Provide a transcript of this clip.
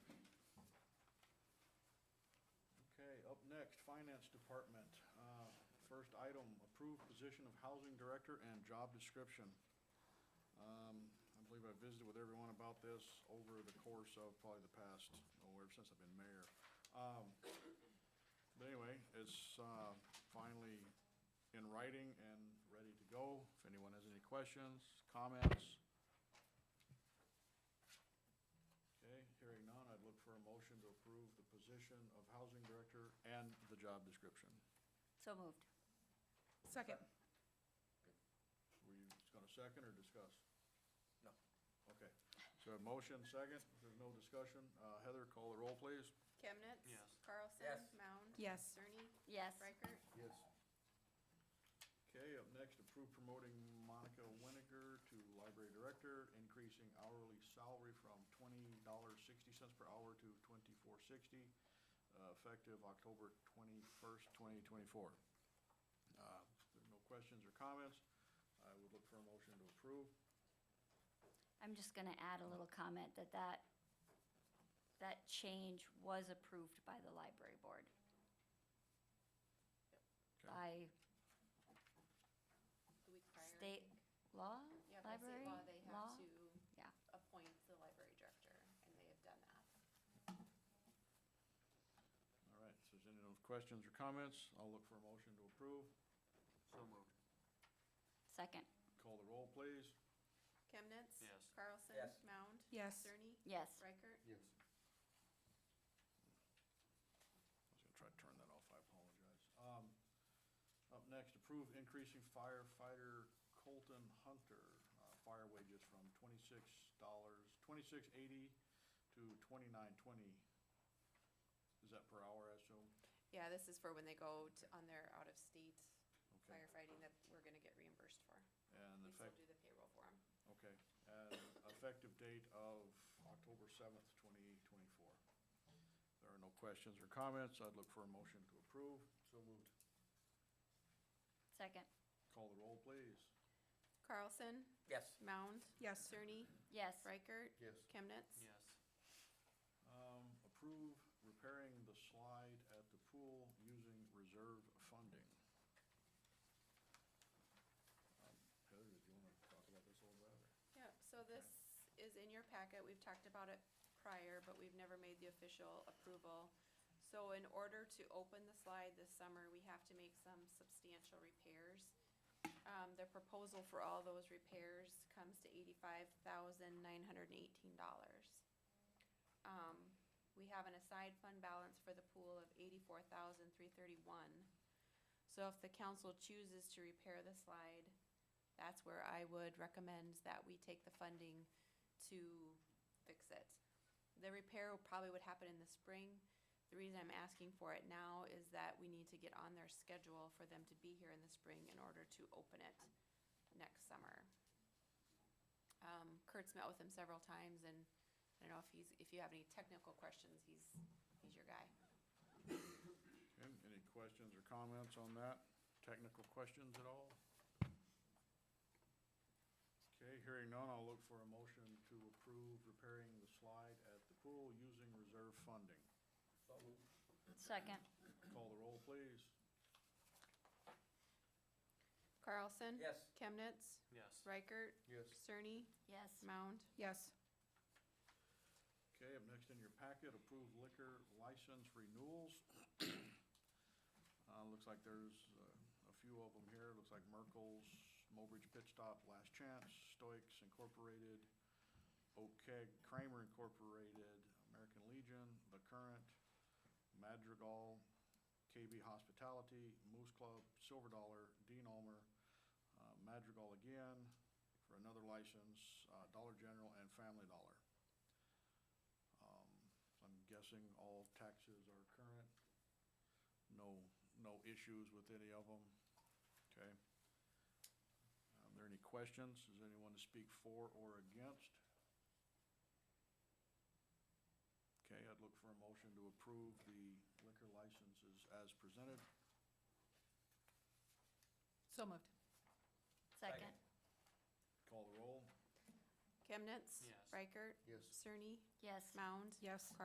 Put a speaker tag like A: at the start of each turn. A: Next, Finance Department. Uh, First item, approved position of Housing Director and job description. Um, I believe I visited with everyone about this over the course of probably the past, oh, ever since I've been mayor. Um, But anyway, it's uh, finally in writing and ready to go. If anyone has any questions, comments. Okay, hearing none, I'd look for a motion to approve the position of Housing Director and the job description.
B: So moved.
C: Second.
A: Were you going to second or discuss?
D: No.
A: Okay, so a motion, second, If there's no discussion. Uh, Heather, call the roll, please.
E: Chemnitz?
D: Yes.
E: Carlson?
D: Yes.
E: Mound?
C: Yes.
E: Cerny?
B: Yes.
E: Reichert?
A: Yes. Okay, up next, approve promoting Monica Winiger to Library Director, increasing hourly salary from twenty dollars sixty cents per hour to twenty-four sixty, uh, effective October twenty-first, twenty twenty-four. Uh, If there are no questions or comments, I would look for a motion to approve.
B: I'm just going to add a little comment that that, that change was approved by the library board
A: Okay.
B: by
E: The week prior. I
B: state
E: think.
B: law,
E: Yeah, by
B: library
E: state
B: law?
E: law, they have to
B: Yeah.
E: appoint the library director, and they have done that.
A: All right, so is any other questions or comments? I'll look for a motion to approve.
D: So moved.
B: Second,
A: Call the roll, please.
E: Chemnitz?
D: Yes.
E: Carlson?
D: Yes.
E: Mound?
C: Yes.
E: Cerny?
B: yes.
E: Reichert?
D: Yes.
A: I was gonna try to turn that off, I apologize. Um, Up next, approve increasing firefighter Colton Hunter, uh, fire wages from twenty-six dollars, twenty-six eighty to twenty-nine twenty. Is that per hour, I assume?
E: Yeah, this is for when they go to, on their out-of-state
A: Okay.
E: firefighting that we're gonna get reimbursed for.
A: And
E: We still
A: effect,
E: do the payroll for them.
A: okay, and effective date of October seventh, twenty twenty-four. There are no questions or comments, I'd look for a motion to approve. So moved.
B: Second,
A: Call the roll, please.
E: Carlson?
D: Yes.
E: Mound?
C: Yes.
E: Cerny?
B: yes.
E: Reichert?
A: Yes.
E: Chemnitz?
D: Yes.
A: Um, approve repairing the slide at the pool using reserve funding. Um, Heather, did you wanna talk about this a little bit? or-
E: Yep, so this is in your packet, we've talked about it prior, but we've never made the official approval. So in order to open the slide this summer, we have to make some substantial repairs. Um, the proposal for all those repairs comes to eighty-five thousand nine hundred and eighteen dollars. Um, we have an aside fund balance for the pool of eighty-four thousand three thirty-one. So if the council chooses to repair the slide, that's where I would recommend that we take the funding to fix it. The repair probably would happen in the spring. The reason I'm asking for it now is that we need to get on their schedule for them to be here in the spring in order to open it next summer. Um, Kurt's met with him several times and I don't know if he's, if you have any technical questions, he's, he's your guy.
A: Okay, any questions or comments on that? Technical questions at all? Okay, hearing none, I'll look for a motion to approve repairing the slide at the pool using reserve funding.
D: So moved.
B: Second,
A: Call the roll, please.
E: Carlson?
D: Yes.
E: Chemnitz?
D: Yes.
E: Reichert?
A: Yes.
E: Cerny?
B: yes.
E: Mound?
C: Yes.
A: Okay, up next in your packet, approved liquor license renewals. Uh, looks like there's uh, a few of them here. Looks like Merkel's, Mobridge Pit Stop, Last Chance, Stoics Incorporated, Oak Keg, Kramer Incorporated, American Legion, The Current, Madrigal, KB Hospitality, Moose Club, Silver Dollar, Dean Almer, uh, Madrigal again for another license, uh, Dollar General and Family Dollar. Um, so I'm guessing all taxes are current. No, no issues with any of them. Okay. Are there any questions? Is anyone to speak for or against? Okay, I'd look for a motion to approve the liquor licenses as presented.
C: So moved.
B: Second,
A: Call the roll.
E: Chemnitz?
D: Yes.
E: Reichert?
A: Yes.
E: Cerny?
B: yes.
E: Mound?
C: Yes.